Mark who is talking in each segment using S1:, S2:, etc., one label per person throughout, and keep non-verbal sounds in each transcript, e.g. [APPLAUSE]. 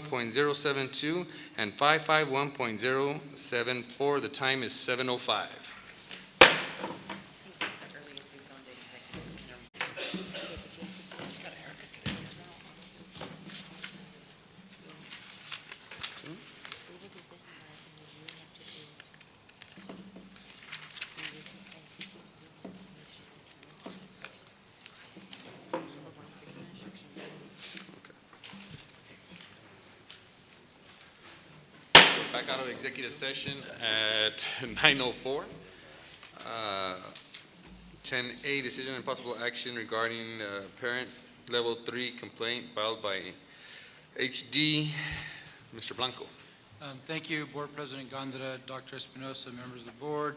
S1: 551.072, and 551.074. The time is 7:05. Back out of executive session at [LAUGHS] 9:04. Uh, 10A, decision and possible action regarding uh, parent level three complaint filed by HD. Mr. Blanco.
S2: Um, Thank you, Board President Gondra, Dr. Espinosa, members of the board,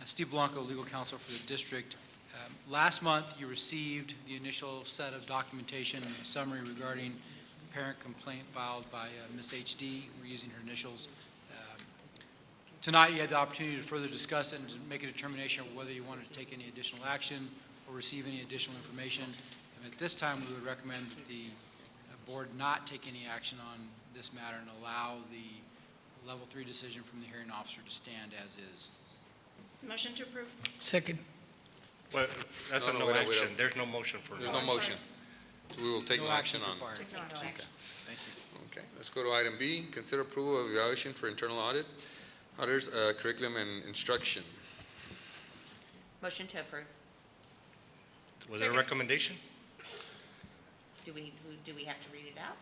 S2: Uh, Steve Blanco, legal counsel for the district. Um, Last month, you received the initial set of documentation and summary regarding the parent complaint filed by uh, Ms. HD. We're using her initials. Um, Tonight, you had the opportunity to further discuss it and to make a determination of whether you wanted to take any additional action or receive any additional information. And at this time, we would recommend that the uh, board not take any action on this matter and allow the level three decision from the hearing officer to stand as is.
S3: Motion to approve.
S4: Second,
S5: Well, that's a
S1: No, no,
S5: no
S1: wait, wait,
S5: action. There's no motion for
S1: There's
S5: now.
S1: no motion. So We will take Oh, no action
S2: actions
S1: on.
S2: required.
S3: Take no action.
S2: Thank you.
S1: Okay, let's go to item B, consider approval of evaluation for internal audit, auditors, uh, curriculum and instruction.
S6: Motion to approve.
S5: Was there a
S3: Second.
S5: recommendation?
S6: Do we, who- do we have to read it out?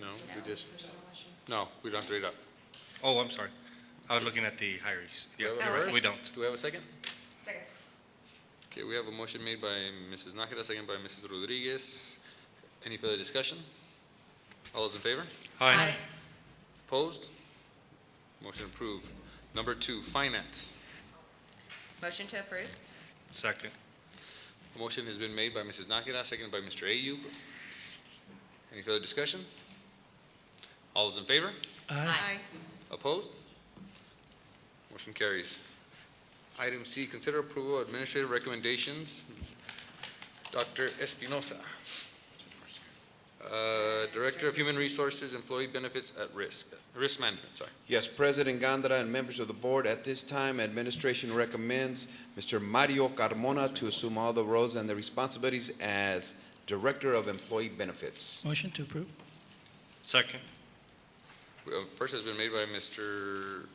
S1: No, we just, no, we don't have to read up.
S5: Oh, I'm sorry. I was looking at the hires.
S1: Do
S5: Yeah,
S1: we have a
S5: you're right.
S1: first?
S5: we don't.
S1: Do we have a second?
S3: Second.
S1: Okay, we have a motion made by Mrs. Nakira, second by Mrs. Rodriguez. Any further discussion? All those in favor?
S5: Aye.
S1: Opposed? Motion approved. Number two, finance.
S6: Motion to approve.
S5: Second.
S1: A motion has been made by Mrs. Nakira, seconded by Mr. Ayub. Any further discussion? All those in favor?
S4: aye.
S1: Opposed? Motion carries. Item C, consider approval of administrative recommendations. Dr. Espinosa, uh, Director of Human Resources, Employee Benefits at Risk, Risk Management, sorry.
S7: Yes, President Gondra and members of the board, at this time, administration recommends Mr. Mario Carmona to assume all the roles and the responsibilities as Director of Employee Benefits.
S4: Motion to approve.
S5: Second.
S1: Uh, First has been made by Mr.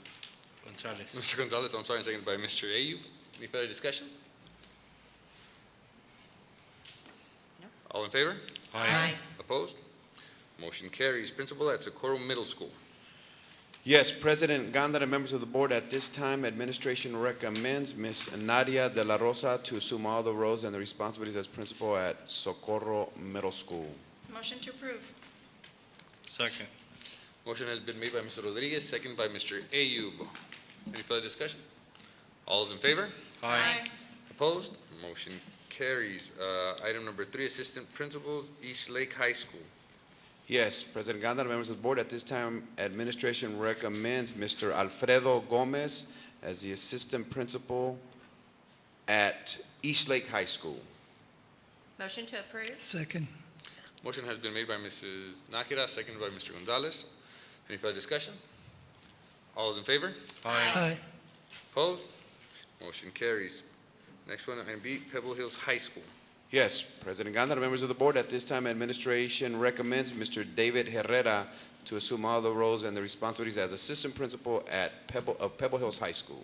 S5: Gonzalez.
S1: Mr. Gonzalez, I'm sorry, and seconded by Mr. Ayub. Any further discussion?
S6: No.
S1: All in favor? Opposed? Motion carries. Principal at Socorro Middle School.
S7: Yes, President Gondra and members of the board, at this time, administration recommends Ms. Nadia De La Rosa to assume all the roles and the responsibilities as Principal at Socorro Middle School.
S3: Motion to approve.
S5: Second.
S1: Motion has been made by Mr. Rodriguez, seconded by Mr. Ayub. Any further discussion? All is in favor?
S5: Aye.
S1: Opposed? Motion carries. Uh, Item number three, Assistant Principals, East Lake High School.
S7: Yes, President Gondar, members of the board, at this time, administration recommends Mr. Alfredo Gomez as the assistant principal at East Lake High School.
S6: Motion to approve.
S4: Second,
S1: Motion has been made by Mrs. Nakira, seconded by Mr. Gonzalez. Any further discussion? All is in favor?
S5: Aye.
S4: aye.
S1: Opposed? Motion carries. Next one, item B, Pebble Hills High School.
S7: Yes, President Gondar, members of the board, at this time, administration recommends Mr. David Herrera to assume all the roles and the responsibilities as assistant principal at Pebble, of Pebble Hills High School.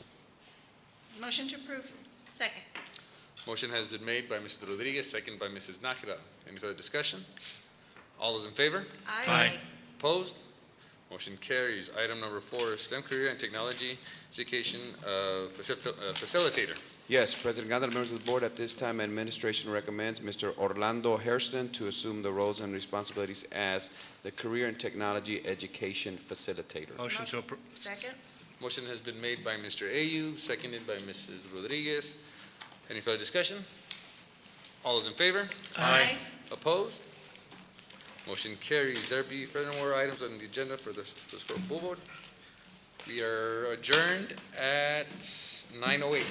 S3: Motion to approve.
S6: Second.
S1: Motion has been made by Mrs. Rodriguez, seconded by Mrs. Nakira. Any further discussion? All is in favor?
S5: Aye.
S1: Opposed? Motion carries. Item number four, STEM Career and Technology Education uh, faci- uh, Facilitator.
S7: Yes, President Gondar, members of the board, at this time, administration recommends Mr. Orlando Hairston to assume the roles and responsibilities as the Career and Technology Education Facilitator.
S5: Motion to approve.
S3: Second.
S1: Motion has been made by Mr. Ayub, seconded by Mrs. Rodriguez. Any further discussion? All is in favor?
S5: Aye.
S1: Opposed? Motion carries. There be furthermore items on the agenda for this, this for full board. We are adjourned at 9:08.